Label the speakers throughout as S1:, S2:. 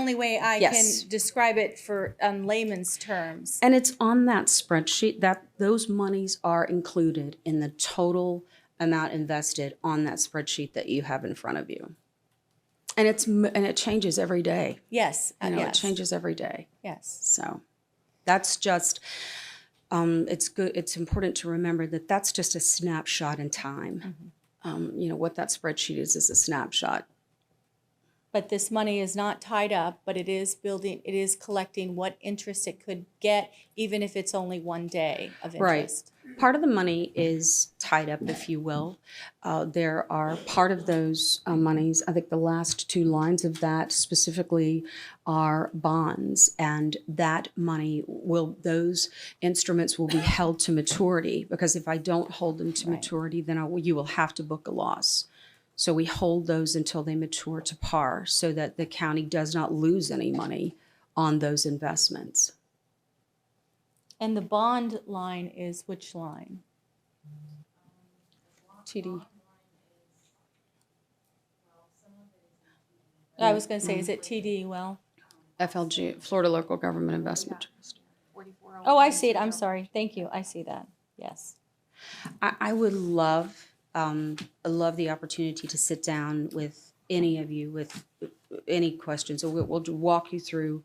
S1: only way I
S2: Yes.
S1: can describe it for on layman's terms.
S2: And it's on that spreadsheet that those monies are included in the total amount invested on that spreadsheet that you have in front of you. And it's m- and it changes every day.
S1: Yes, uh,
S2: You know,
S1: yes,
S2: it changes every day.
S1: yes.
S2: So that's just um, it's good. It's important to remember that that's just a snapshot in time. Um, you know what that spreadsheet is is a snapshot.
S1: But this money is not tied up, but it is building, it is collecting what interest it could get, even if it's only one day of
S2: Right.
S1: interest.
S2: Part of the money is tied up, if you will. Uh, there are part of those uh, monies, I think the last two lines of that specifically are bonds, and that money will, those instruments will be held to maturity because if I don't hold them to maturity, then I will- you will have to book a loss. So we hold those until they mature to par so that the county does not lose any money on those investments.
S1: And the bond line is which line?
S2: TD. Mm,
S1: I was gonna say, is it TD well?
S2: FLG, Florida Local Government Investment Trust.
S1: Oh, I see it, I'm sorry, thank you, I see that, yes.
S2: I, I would love, um, I love the opportunity to sit down with any of you with uh, any questions. So we'll, we'll walk you through,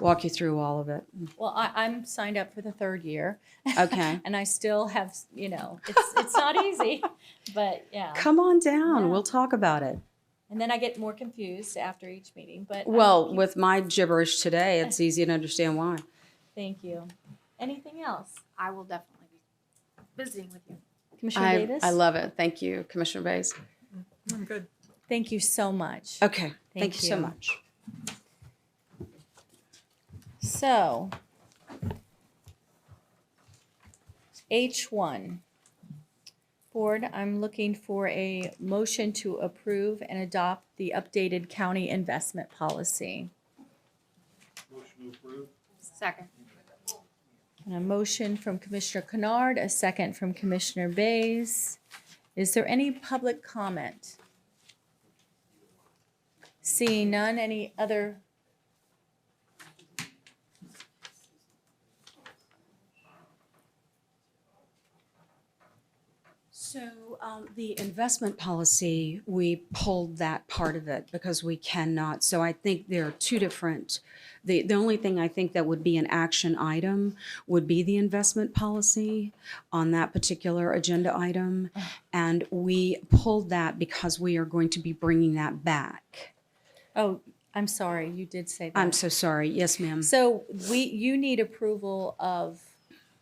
S2: walk you through all of it.
S1: Well, I, I'm signed up for the third year.
S2: Okay.
S1: And I still have, you know, it's, it's not easy, but yeah.
S2: Come on down.
S1: Yeah.
S2: We'll talk about it.
S1: And then I get more confused after each meeting, but. um, I will
S2: Well,
S1: keep-
S2: with my gibberish today, it's easy to understand why.
S1: Thank you. Anything else?
S3: I will definitely be visiting with you.
S1: Commissioner Davis?
S2: love it. Thank you, Commissioner Bays.
S4: I'm good.
S1: Thank you so much.
S2: Okay.
S1: Thank
S2: Thank you so
S1: you.
S2: much.
S1: So, H1. Board, I'm looking for a motion to approve and adopt the updated county investment policy.
S5: Motion to approve.
S3: Second.
S1: And a motion from Commissioner Kennard, a second from Commissioner Bays. Is there any public comment? Seeing none, any other?
S2: So um, the investment policy, we pulled that part of it because we cannot. So I think there are two different. The, the only thing I think that would be an action item would be the investment policy on that particular agenda item. And we pulled that because we are going to be bringing that back.
S1: Oh, I'm sorry, you did say that.
S2: I'm so sorry. Yes, ma'am.
S1: So we, you need approval of,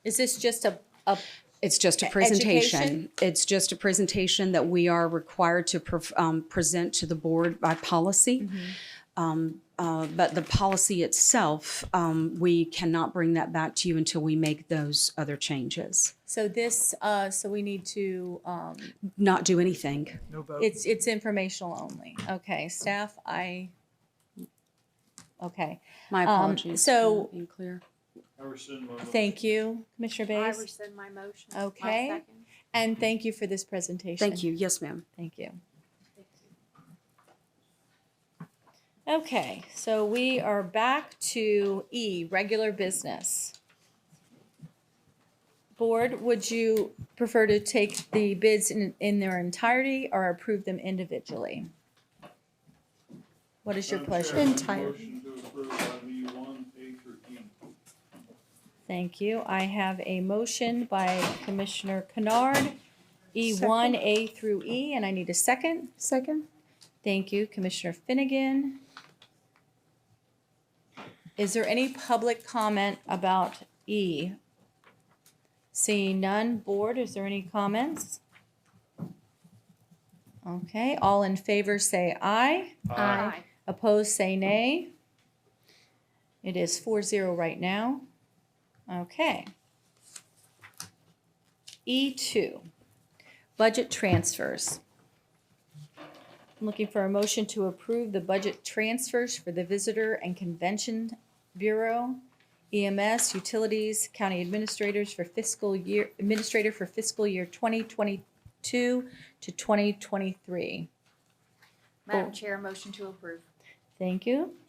S1: is this just a, a,
S2: It's just a presentation. It's just a presentation that we are required to pref- um, present to the board by policy. Um, uh, But the policy itself, um, we cannot bring that back to you until we make those other changes.
S1: so this, uh, so we need to, um,
S2: Not do anything.
S4: No vote.
S1: it's, it's informational only. Okay, staff, I, okay,
S2: My
S1: Um,
S2: apologies. for
S1: so-
S2: not being clear.
S5: I rescind my motion.
S1: thank you, Commissioner
S3: I
S1: Bays.
S3: rescind my motion. My
S1: Okay.
S3: second.
S1: And thank you for this presentation.
S2: Thank you. Yes, ma'am.
S1: Thank you. Okay, so we are back to E, regular business. Board, would you prefer to take the bids in, in their entirety or approve them individually? What is your
S5: Madam Chair,
S1: pleasure?
S5: I make a Motion to approve item E one, A through E.
S1: Thank you. I have a motion by Commissioner Kennard, E1, A through E, and I need a second.
S2: Second.
S1: Thank you, Commissioner Finnegan. Is there any public comment about E? Seeing none, board, is there any comments? Okay, all in favor say aye.
S3: Aye.
S1: Opposed, say nay. It is four zero right now. Okay. E two, budget transfers. I'm Looking for a motion to approve the budget transfers for the Visitor and Convention Bureau, EMS, Utilities, County Administrators for fiscal year, Administrator for fiscal year twenty twenty-two to twenty twenty-three.
S3: Madam Chair, motion to approve.
S1: Thank you.